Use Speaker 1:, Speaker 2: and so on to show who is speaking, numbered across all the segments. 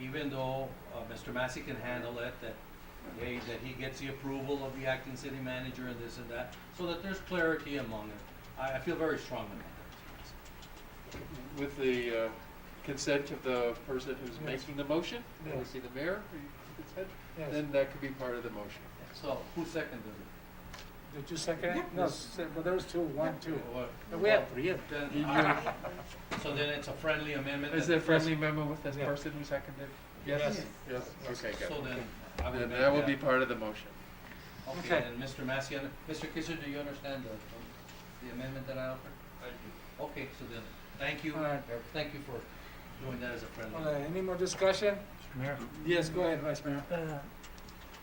Speaker 1: even though uh, Mr. Massey can handle it, that, hey, that he gets the approval of the acting city manager and this and that, so that there's clarity among it. I, I feel very strongly about
Speaker 2: With the uh, consent of the person who's
Speaker 3: Yes.
Speaker 2: making the motion,
Speaker 3: Yes.
Speaker 2: obviously the mayor, for your consent,
Speaker 3: Yes.
Speaker 2: then that could be part of the motion.
Speaker 1: that. So, who seconded it?
Speaker 3: Did you second it? No, s- well, there was two, one, two.
Speaker 1: Or-
Speaker 3: No, we have three.
Speaker 1: Then- uh,
Speaker 2: You- you-
Speaker 1: So then it's a friendly amendment?
Speaker 2: Is there
Speaker 1: that-
Speaker 2: a friendly amendment with this
Speaker 3: Yeah.
Speaker 2: person who seconded?
Speaker 3: Yes.
Speaker 2: Yes, okay, good.
Speaker 1: So then, I would
Speaker 2: Then
Speaker 1: make that.
Speaker 2: that will be part of the motion.
Speaker 1: Okay,
Speaker 3: Okay.
Speaker 1: and Mr. Massey, under- Mr. Kisser, do you understand um, the, the amendment that I offered? I do. Okay, so then, thank you,
Speaker 3: All right.
Speaker 1: thank you for doing that as a friendly.
Speaker 3: All right, any more discussion?
Speaker 4: Mr. Mayor,
Speaker 3: Yes, go ahead, Vice Mayor.
Speaker 4: uh,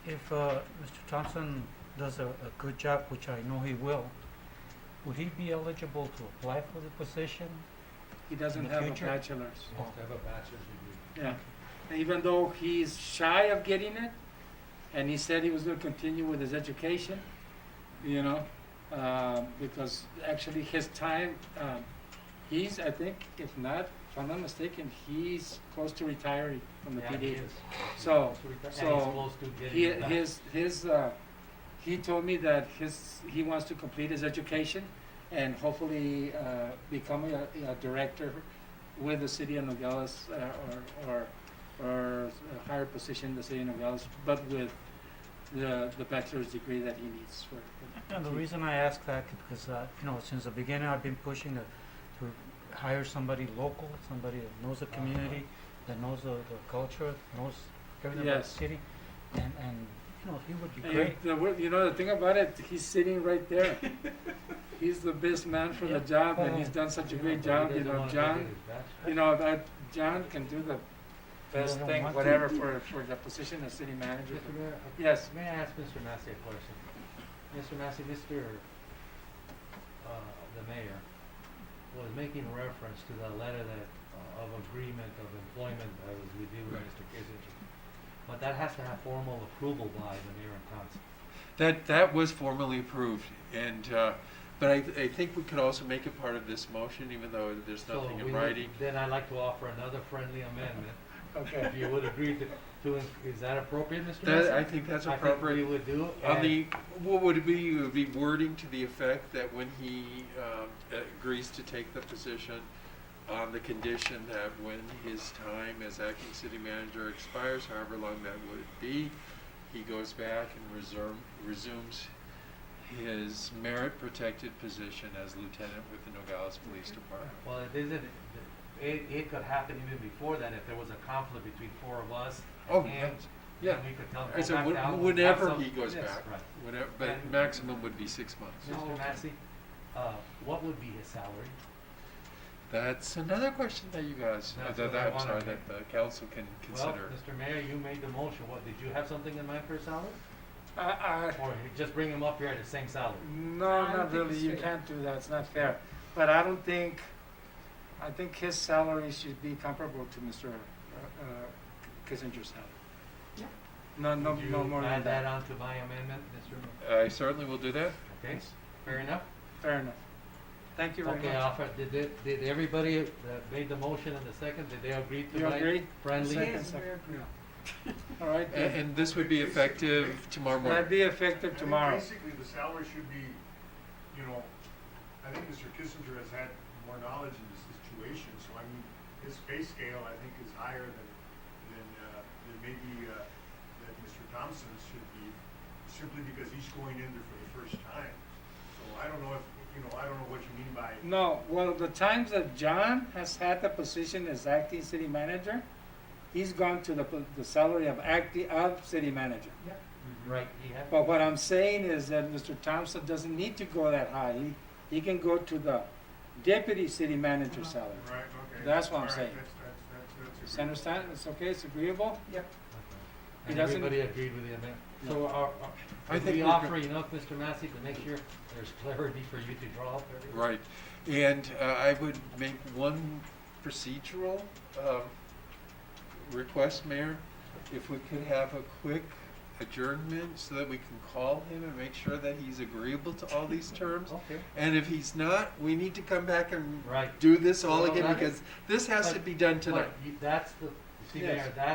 Speaker 4: if uh, Mr. Thompson does a a good job, which I know he will, would he be eligible to apply for the position?
Speaker 3: He doesn't
Speaker 4: In the
Speaker 3: have a
Speaker 4: future?
Speaker 3: bachelor's.
Speaker 1: You have to have a bachelor's degree.
Speaker 3: Yeah. And even though he's shy of getting it, and he said he was gonna continue with his education, you know, um, because actually his time, um, he's, I think, if not, if I'm not mistaken, he's close to retiring from the
Speaker 1: Yeah,
Speaker 3: PD.
Speaker 1: he is.
Speaker 3: So,
Speaker 1: And he's
Speaker 3: so
Speaker 1: close to getting
Speaker 3: He,
Speaker 1: it back.
Speaker 3: his, his, uh, he told me that his, he wants to complete his education and hopefully, uh, become a, a director with the city of Nogales, uh, or, or, or a higher position in the city of Nogales, but with the, the bachelor's degree that he needs for.
Speaker 4: And the reason I ask that is because, uh, you know, since the beginning, I've been pushing to to hire somebody local, somebody that knows the community, that knows the the culture, knows everything about the
Speaker 3: Yes.
Speaker 4: city. And, and, you know, he would be
Speaker 3: And
Speaker 4: great.
Speaker 3: the, wor- you know, the thing about it, he's sitting right there. He's the best man for the job and he's done such a great job, you know, John. You know, that John can do the best
Speaker 4: Doesn't
Speaker 3: thing,
Speaker 4: want
Speaker 3: whatever, for, for the position of city manager. Yes,
Speaker 5: May I ask Mr. Massey a question? Mr. Massey, Mr., uh, the mayor was making reference to the letter that, uh, of agreement of employment that was with you and Mr. Kissinger. But that has to have formal approval by the mayor and council.
Speaker 2: That, that was formally approved, and, uh, but I, I think we could also make it part of this motion, even though there's
Speaker 5: So
Speaker 2: nothing
Speaker 5: we
Speaker 2: in
Speaker 5: would-
Speaker 2: writing.
Speaker 5: Then I'd like to offer another friendly amendment,
Speaker 3: okay.
Speaker 5: if you would agree to, to, in- is that appropriate, Mr. Massey?
Speaker 2: That, I think that's
Speaker 5: I think we
Speaker 2: appropriate.
Speaker 5: would do,
Speaker 2: On
Speaker 5: and
Speaker 2: the, what would it be, it would be wording to the effect that when he, um, agrees to take the position, on the condition that when his time as acting city manager expires, however long that would be, he goes back and resume, resumes his merit-protected position as lieutenant with the Nogales Police Department.
Speaker 5: Well, it isn't, it, it could happen even before that, if there was a conflict between four of us.
Speaker 2: Oh,
Speaker 5: and
Speaker 2: yeah.
Speaker 5: we could tell,
Speaker 2: I
Speaker 5: go
Speaker 2: said,
Speaker 5: back
Speaker 2: whe-
Speaker 5: down.
Speaker 2: whenever
Speaker 5: have
Speaker 2: he
Speaker 5: some-
Speaker 2: goes
Speaker 5: yes,
Speaker 2: back,
Speaker 5: Right.
Speaker 2: whenever, but
Speaker 5: And-
Speaker 2: maximum would be six months.
Speaker 5: Mr. Massey, uh, what would be his salary?
Speaker 2: That's another question that you guys, uh,
Speaker 5: That's
Speaker 2: that,
Speaker 5: what I
Speaker 2: that- I'm
Speaker 5: wanna
Speaker 2: sorry,
Speaker 5: hear.
Speaker 2: that the council can
Speaker 5: Well,
Speaker 2: consider.
Speaker 5: Mr. Mayor, you made the motion, what, did you have something in mind for a salary?
Speaker 3: I, I,
Speaker 5: Or you just bring him up here at the same salary?
Speaker 3: no, not really, you can't do that, it's not fair. But I don't think, I think his salary should be comparable to Mr. uh, Kissinger's salary. No, Uh, no,
Speaker 5: Would
Speaker 3: no more
Speaker 5: you
Speaker 3: than
Speaker 5: add that
Speaker 3: that,
Speaker 5: on to my amendment, Mr. Mayor?
Speaker 2: I certainly will do that.
Speaker 5: Okay, fair enough?
Speaker 3: fair enough. Thank you very
Speaker 5: Okay,
Speaker 3: much.
Speaker 5: Alfred, did, it- did everybody that made the motion and the second, did they agree to
Speaker 3: You
Speaker 5: my
Speaker 3: agree?
Speaker 5: friendly?
Speaker 3: Second, second, yeah. All right,
Speaker 2: A-
Speaker 3: then.
Speaker 2: And this would be effective tomorrow
Speaker 3: That'd
Speaker 2: morning.
Speaker 3: be effective
Speaker 6: I
Speaker 3: tomorrow.
Speaker 6: think basically, the salary should be, you know, I think Mr. Kissinger has had more knowledge in this situation, so I mean, his pay scale, I think, is higher than, than, uh, than maybe, uh, that Mr. Thompson's should be, simply because he's going in there for the first time. So I don't know if, you know, I don't know what you mean by,
Speaker 3: No, well, the times that John has had the position as acting city manager, he's gone to the, po- the salary of acting, of city manager.
Speaker 5: Mm-hmm. Right, he had.
Speaker 3: But what I'm saying is that Mr. Thompson doesn't need to go that high. He, he can go to the deputy city manager salary.
Speaker 6: right, okay.
Speaker 3: That's what I'm
Speaker 6: All right,
Speaker 3: saying.
Speaker 6: That's, that's, that's, that's.
Speaker 3: You
Speaker 6: agreeable.
Speaker 3: understand? It's okay, it's agreeable? He
Speaker 5: And
Speaker 3: doesn't-
Speaker 5: everybody agreed with the amendment? So are, are,
Speaker 2: I
Speaker 5: did
Speaker 2: think
Speaker 5: we
Speaker 2: we're
Speaker 5: offer
Speaker 2: good.
Speaker 5: enough, Mr. Massey, to make sure there's clarity for you to draw up everything?
Speaker 2: Right. And uh, I would make one procedural um, request, Mayor. If we could have a quick adjournment so that we can call him and make sure that he's agreeable to all these terms.
Speaker 5: Okay,
Speaker 2: And if he's not, we need to come back and
Speaker 5: right.
Speaker 2: do this all
Speaker 5: Well,
Speaker 2: again
Speaker 5: that-
Speaker 2: because this has to be done tonight.
Speaker 5: But you- that's the, see, Mayor,
Speaker 2: Yes.
Speaker 5: that's